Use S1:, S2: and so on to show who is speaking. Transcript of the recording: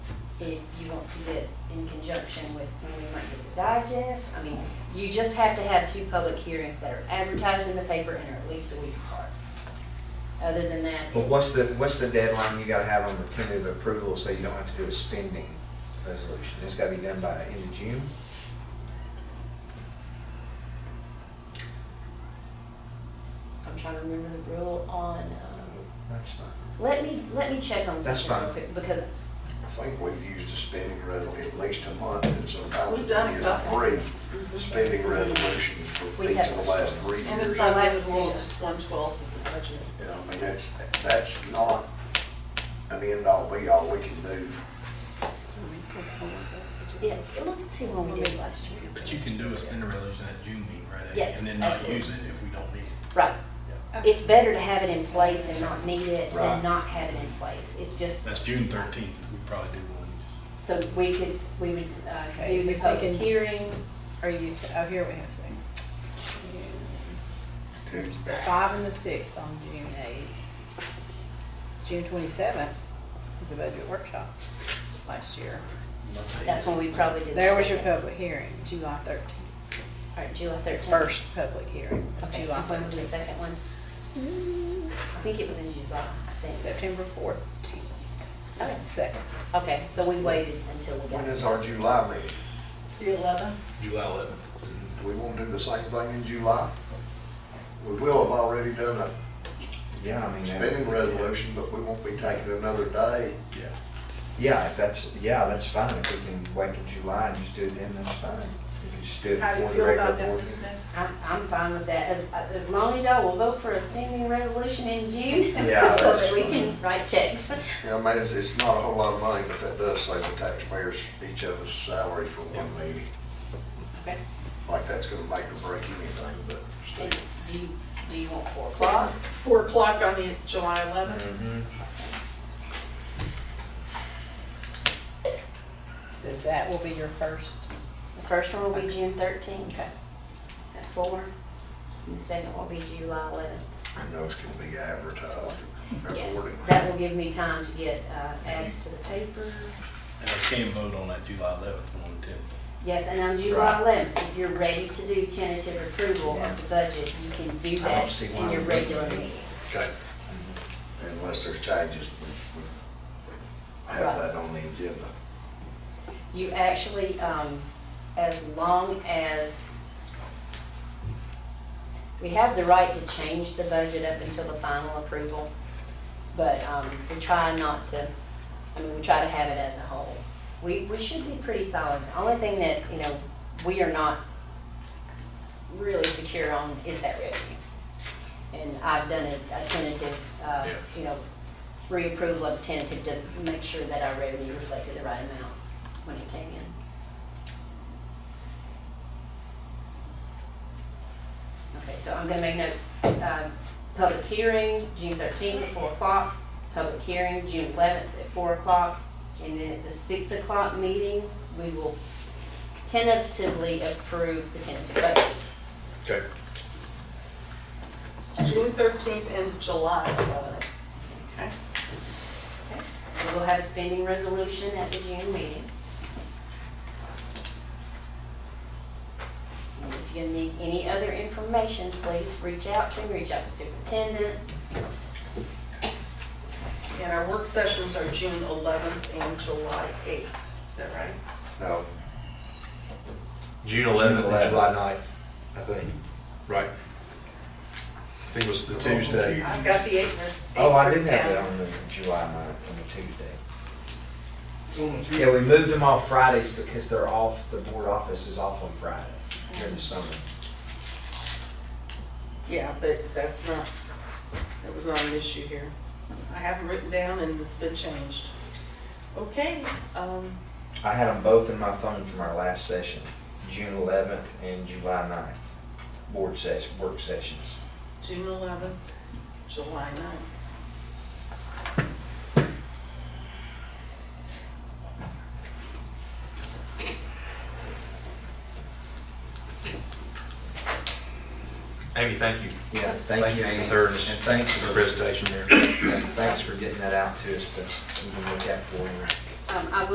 S1: if you want to do it in conjunction with when we might get the digest. I mean, you just have to have two public hearings that are advertised in the paper and are at least a week apart. Other than that,
S2: But what's the, what's the deadline you gotta have on the tentative approval so you don't have to do a spending resolution? It's gotta be done by end of June?
S1: I'm trying to remember the rule on, um,
S2: That's fine.
S1: let me, let me check on
S2: That's
S1: something real
S2: fine.
S1: quick, because
S3: I think we've used a spending resolution at least a month and sometimes
S4: We've done it
S3: it's
S4: about Mm-hmm.
S3: three spending resolutions for
S1: We
S3: each
S1: have-
S3: of the last three
S4: And the
S3: years.
S1: like-
S4: sunlight rules is one twelfth of the budget.
S3: You know, I mean, that's, that's not an end all be all we can do.
S1: Yeah, look and see what we did last year.
S5: But you can do a spending resolution at June meeting, right? And-
S1: Yes,
S5: And then not
S1: absolutely.
S5: use it if we don't need it.
S1: Right.
S4: Okay.
S1: It's better to have it in place and not need it than
S3: Right.
S1: not have it in place. It's just,
S5: That's June thirteenth, we probably do one.
S1: so we could, we would uh,
S6: Okay,
S1: do the
S6: we're
S1: public
S6: thinking-
S1: hearing.
S6: Are you, oh, here we have something.
S3: to-
S6: The Five and the sixth on June eighth. June twenty-seventh is a budget workshop last year.
S5: Not today.
S1: That's when we probably did. the
S6: There was your
S1: second.
S6: public hearing, July thirteenth.
S1: All right, July thirteenth.
S6: First public hearing was
S1: Okay,
S6: July
S1: when was the
S6: thirteenth.
S1: second one? I think it was in July, I think.
S6: September fourth. That's the second.
S1: Okay, so we waited until we got.
S3: When is our July meeting?
S4: The eleven?
S5: July eleventh.
S3: Do we want to do the same thing in July? We will have already done a
S2: Yeah, I mean,
S3: spending
S2: that-
S3: resolution, but we won't be taking another day.
S5: Yeah.
S2: yeah, if that's, yeah, that's fine. If we can wait till July and just do it then, that's fine. We can just do it
S4: How do you
S2: before the
S4: feel
S2: regular
S4: about that,
S2: board.
S4: Ms. Smith?
S1: I'm, I'm fine with that, as, as long as y'all will vote for a spending resolution in June.
S2: Yeah,
S1: So
S2: that's
S1: that we
S2: fine.
S1: can write checks.
S3: You know, I mean, it's, it's not a whole lot of money, but that does save the taxpayers, each of us salary for one meeting.
S1: Okay.
S3: Like that's gonna make or break anything, but
S1: And
S3: still.
S1: do you, do you want four
S4: Clock,
S1: o'clock?
S4: four o'clock on the July eleventh?
S2: Mhm.
S6: So that will be your first.
S1: The first one will be June thirteenth.
S6: Okay.
S1: At four. And the second will be July eleventh.
S3: And those can be advertised
S1: Yes,
S3: accordingly.
S1: that will give me time to get uh, ads to the paper.
S5: And I can vote on that July eleventh, one tenth.
S1: Yes, and on July eleventh, if you're ready to do tentative approval of the budget, you can do
S2: I don't
S1: that
S2: see
S1: in
S2: why
S1: your
S2: we
S1: regular
S2: wouldn't.
S1: meeting.
S3: Okay. Unless there's changes, we, we have that on the agenda.
S1: You actually, um, as long as, we have the right to change the budget up until the final approval, but, um, we try not to, I mean, we try to have it as a whole. We, we should be pretty solid. The only thing that, you know, we are not really secure on is that revenue. And I've done a a tentative, uh,
S5: Yeah.
S1: you know, reapproval of tentative to make sure that our revenue reflected the right amount when it came in. Okay, so I'm gonna make note, uh, public hearing, June thirteenth at four o'clock, public hearing, June eleventh at four o'clock, and then at the six o'clock meeting, we will tentatively approve the tentative budget.
S3: Okay.
S4: June thirteenth and July eleventh. Okay.
S1: So we'll have a spending resolution at the June meeting. And if you need any other information, please reach out to me, reach out to superintendent.
S4: And our work sessions are June eleventh and July eighth, is that right?
S3: No,
S7: June
S2: June
S7: eleventh and
S2: 11th.
S7: July ninth, I think. Right. I think it was the Tuesday.
S4: I've got the eighth. writ-
S2: Oh, I
S4: eighth
S2: did have
S4: written
S2: it
S4: down.
S2: on the July ninth, on the Tuesday. Yeah, we moved them off Fridays because they're off, the board office is off on Friday during the summer.
S4: Yeah, but that's not, that was not an issue here. I have it written down and it's been changed. Okay, um,
S2: I had them both in my phone from our last session, June eleventh and July 9th, board session, work sessions.
S4: June eleventh, July ninth.
S7: Amy, thank you.
S2: Yeah, thank you, Amy.
S7: Third
S2: And
S7: is-
S2: thanks
S7: for the
S2: for,
S7: presentation there.
S2: thanks for getting that out to us to, we can look at for you.
S1: Um, I will